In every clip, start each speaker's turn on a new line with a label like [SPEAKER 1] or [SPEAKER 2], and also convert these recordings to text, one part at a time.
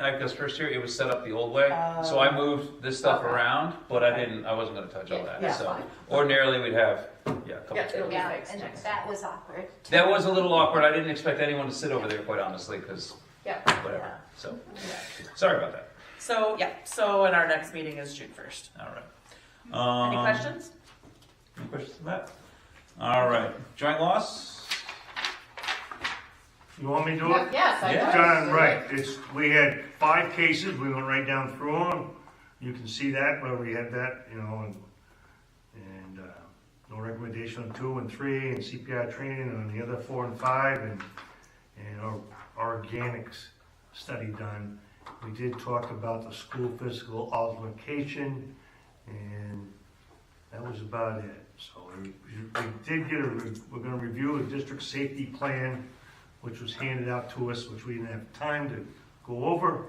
[SPEAKER 1] I, because first year it was set up the old way, so
[SPEAKER 2] Oh.
[SPEAKER 1] I moved this stuff
[SPEAKER 2] Okay.
[SPEAKER 1] around, but I
[SPEAKER 2] Okay.
[SPEAKER 1] didn't, I wasn't gonna touch all
[SPEAKER 2] Yeah,
[SPEAKER 1] that,
[SPEAKER 2] yeah,
[SPEAKER 1] so.
[SPEAKER 2] fine.
[SPEAKER 1] Ordinarily, we'd have, yeah, a couple
[SPEAKER 2] Yeah, it'll
[SPEAKER 1] tables.
[SPEAKER 2] be
[SPEAKER 3] Yeah,
[SPEAKER 2] fixed
[SPEAKER 3] and
[SPEAKER 2] next
[SPEAKER 3] that was awkward. too.
[SPEAKER 1] That was a little awkward, I didn't expect anyone to sit over there, quite honestly, because
[SPEAKER 2] Yeah.
[SPEAKER 1] whatever, so, sorry about that,
[SPEAKER 2] So, yeah, so and our next meeting is June first.
[SPEAKER 1] all right.
[SPEAKER 2] Any
[SPEAKER 1] Um,
[SPEAKER 2] questions?
[SPEAKER 1] Any questions on that? All right, joint loss?
[SPEAKER 4] You want me to do it?
[SPEAKER 5] Yes, I
[SPEAKER 1] Yeah.
[SPEAKER 5] know.
[SPEAKER 4] John, right, it's, we had five cases, we went right down through them. You can see that, where we had that, you know, and, and, uh, no recommendation on two and three, and CPI training on the other four and five, and, and our our organics study done. We did talk about the school physical altercation, and that was about it. So we, we did get a, re- we're gonna review the district safety plan, which was handed out to us, which we didn't have time to go over.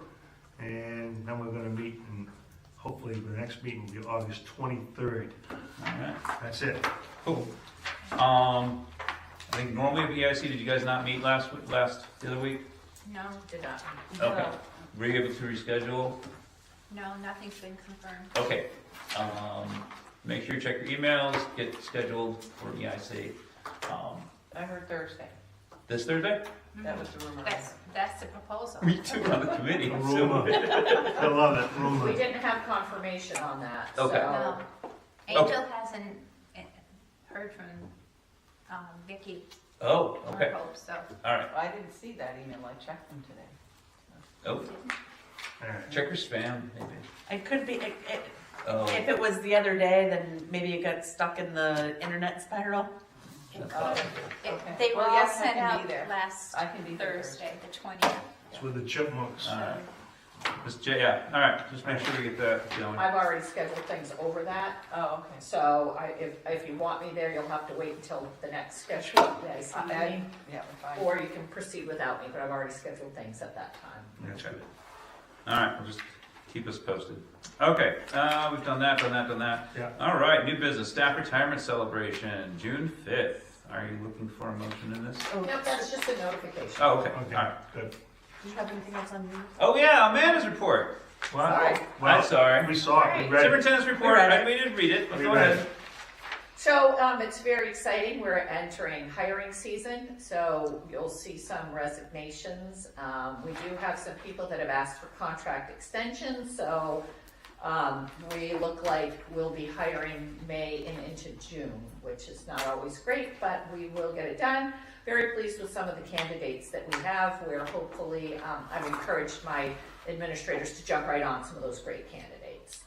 [SPEAKER 4] And then we're gonna meet, and hopefully the next meeting will be August twenty-third.
[SPEAKER 1] All right,
[SPEAKER 4] That's it.
[SPEAKER 1] cool. Um, I think normally at EIC, did you guys not meet last, week- last, the other week?
[SPEAKER 3] No,
[SPEAKER 5] Did not.
[SPEAKER 1] Okay. Were you able to reschedule?
[SPEAKER 3] no, nothing's been confirmed.
[SPEAKER 1] Okay, um, make sure you check your emails, get scheduled for EIC, um,
[SPEAKER 2] I heard Thursday.
[SPEAKER 1] this Thursday?
[SPEAKER 2] That was the rumor.
[SPEAKER 3] That's, that's the proposal.
[SPEAKER 1] Me too, on the committee.
[SPEAKER 4] The
[SPEAKER 1] so-
[SPEAKER 4] rumor. I love it,
[SPEAKER 5] We
[SPEAKER 4] rumor.
[SPEAKER 5] didn't have confirmation on that, so.
[SPEAKER 1] Okay.
[SPEAKER 3] No. Angel hasn't eh, heard from, um, Vicky
[SPEAKER 1] Oh,
[SPEAKER 3] or
[SPEAKER 1] okay,
[SPEAKER 3] Hope, so.
[SPEAKER 1] all right,
[SPEAKER 6] I didn't see that email, I checked them today.
[SPEAKER 1] oh,
[SPEAKER 4] All right.
[SPEAKER 1] check your spam, maybe,
[SPEAKER 2] It could be, it, it,
[SPEAKER 1] oh,
[SPEAKER 2] if it was the other day, then maybe it got stuck in the internet spiral.
[SPEAKER 3] It-
[SPEAKER 6] Okay.
[SPEAKER 3] They were
[SPEAKER 6] Well,
[SPEAKER 3] all
[SPEAKER 6] yes, I
[SPEAKER 3] sent
[SPEAKER 6] can
[SPEAKER 3] out
[SPEAKER 6] be there.
[SPEAKER 3] last
[SPEAKER 6] I can be there
[SPEAKER 3] Thursday, the twentieth.
[SPEAKER 4] It's with the chipmunks.
[SPEAKER 1] all right. Just, j- yeah, all right, just make sure we get that going.
[SPEAKER 5] I've already scheduled things over that,
[SPEAKER 6] Oh, okay.
[SPEAKER 5] so I, if, if you want me there, you'll have to wait until the next scheduled
[SPEAKER 6] I-
[SPEAKER 5] IC
[SPEAKER 6] I-
[SPEAKER 5] meeting.
[SPEAKER 6] Yeah, if I-
[SPEAKER 5] Or you can proceed without me, but I've already scheduled things at that time.
[SPEAKER 1] That's good. All right, we'll just keep us posted. Okay, uh, we've done that, done that, done that.
[SPEAKER 4] Yeah.
[SPEAKER 1] All right, new business, staff retirement celebration, June fifth. Are you looking for a motion in this?
[SPEAKER 2] Oh,
[SPEAKER 5] Nope, that's just a notification.
[SPEAKER 1] Oh, okay, all
[SPEAKER 4] Okay,
[SPEAKER 1] right.
[SPEAKER 4] good.
[SPEAKER 2] Do you have anything else on you?
[SPEAKER 1] Oh, yeah, Amanda's report.
[SPEAKER 4] Well,
[SPEAKER 5] Sorry.
[SPEAKER 1] I'm
[SPEAKER 4] well,
[SPEAKER 1] sorry.
[SPEAKER 4] we saw it, we read it.
[SPEAKER 1] Superintendent's report,
[SPEAKER 2] read
[SPEAKER 1] I- we didn't read it, but
[SPEAKER 4] We
[SPEAKER 1] go
[SPEAKER 4] read
[SPEAKER 1] ahead.
[SPEAKER 5] So, um, it's very exciting, we're entering hiring season, so you'll see some resignations. Um, we do have some people that have asked for contract extensions, so, um, we look like we'll be hiring May and into June, which is not always great, but we will get it done. Very pleased with some of the candidates that we have, where hopefully, um, I've encouraged my administrators to jump right on some of those great candidates.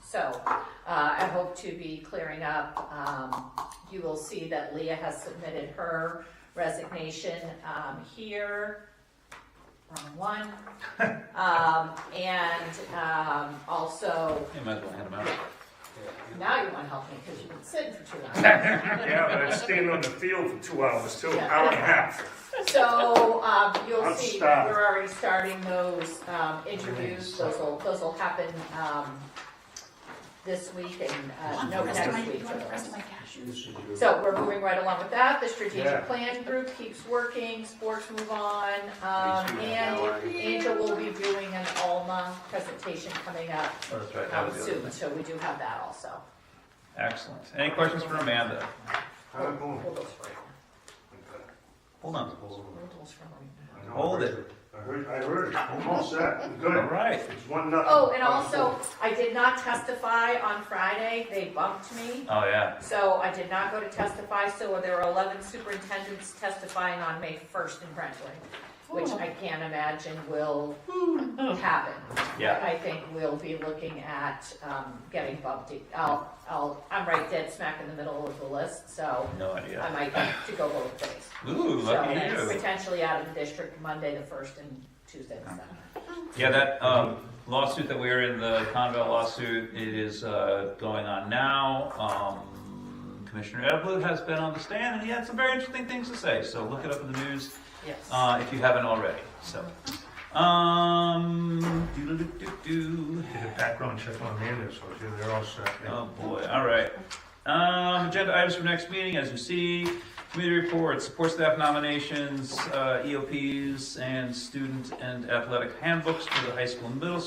[SPEAKER 5] So, uh, I hope to be clearing up. Um, you will see that Leah has submitted her resignation, um, here. Wrong one. Um, and, um, also,
[SPEAKER 1] You might as well hand them out.
[SPEAKER 5] now you wanna help me, cause you've been sitting for two hours.
[SPEAKER 4] Yeah, but I stayed on the field for two hours, two
[SPEAKER 5] Yeah.
[SPEAKER 4] hour and a half.
[SPEAKER 5] So, um, you'll
[SPEAKER 4] I'm
[SPEAKER 5] see, that
[SPEAKER 4] starved.
[SPEAKER 5] we're already starting those, um, interviews, those will, those will happen, um, this week and, uh, no, next week. for the rest. So we're moving right along with that. The
[SPEAKER 4] Yeah.
[SPEAKER 5] strategic plan group keeps working, sports move on. Um, and Angel will be doing an Alma presentation coming up
[SPEAKER 1] Oh, That's right, that
[SPEAKER 5] um,
[SPEAKER 1] was the other
[SPEAKER 5] soon,
[SPEAKER 1] thing.
[SPEAKER 5] so we do have that also.
[SPEAKER 1] Excellent. Any questions for Amanda?
[SPEAKER 5] Hold those for right now.
[SPEAKER 1] Hold on.
[SPEAKER 5] Hold those for right now.
[SPEAKER 1] Hold it.
[SPEAKER 4] I heard, I heard, almost that,
[SPEAKER 1] All
[SPEAKER 4] good.
[SPEAKER 1] right.
[SPEAKER 4] It's one nothing.
[SPEAKER 5] Oh, and also, I did not testify on Friday. They bumped me.
[SPEAKER 1] Oh, yeah.
[SPEAKER 5] So I did not go to testify, so there are eleven superintendents testifying on May first in Brentwood, which I can't imagine will happen.
[SPEAKER 1] Yeah.
[SPEAKER 5] I think we'll be looking at, um, getting bumped, I'll, I'll, I'm right dead smack in the middle of the list, so
[SPEAKER 1] No
[SPEAKER 5] I
[SPEAKER 1] idea.
[SPEAKER 5] might have to go both ways.
[SPEAKER 1] Ooh,
[SPEAKER 5] Uh, So
[SPEAKER 1] lucky
[SPEAKER 5] that's
[SPEAKER 1] you.
[SPEAKER 5] Potentially out of the district Monday the first and Tuesday the seventh.
[SPEAKER 1] Yeah, that um, lawsuit that we are in, the Conval lawsuit, it is uh, going on now. Um, Commissioner Edelblut has been on the stand, and he had some very interesting things to say, so look it up in the news
[SPEAKER 5] Yes.
[SPEAKER 1] uh, if you haven't already, so. Um, doo-doo-doo-doo-doo. Um,
[SPEAKER 4] Did a background check on Amanda, so they're all set.
[SPEAKER 1] Oh, boy, all right. Um, agenda items for next meeting, as you see, committee reports, support staff E nominations, uh, EOPs, and student and athletic handbooks for the high school and middle